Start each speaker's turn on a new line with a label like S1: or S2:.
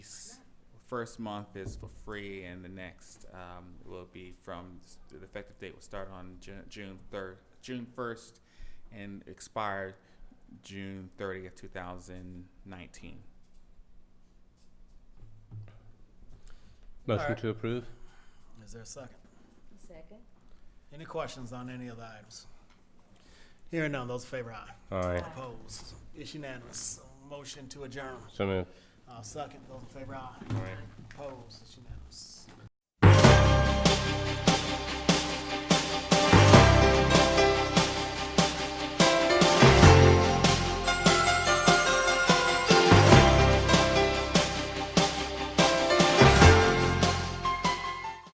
S1: first month is for free, and the next um, will be from the effective date will start on Ju- June third, June first, and expire June thirtieth, two thousand nineteen.
S2: Motion
S3: Alright.
S2: to approve?
S3: Is there a second?
S4: Second.
S3: Any questions on any of the items? Hearing none, those in favor, aye.
S2: Aye.
S3: Opposed? It's unanimous. Motion to adjourn.
S2: So moved.
S3: I'll second. Those in favor, aye.
S2: All right.
S3: Opposed? It's unanimous.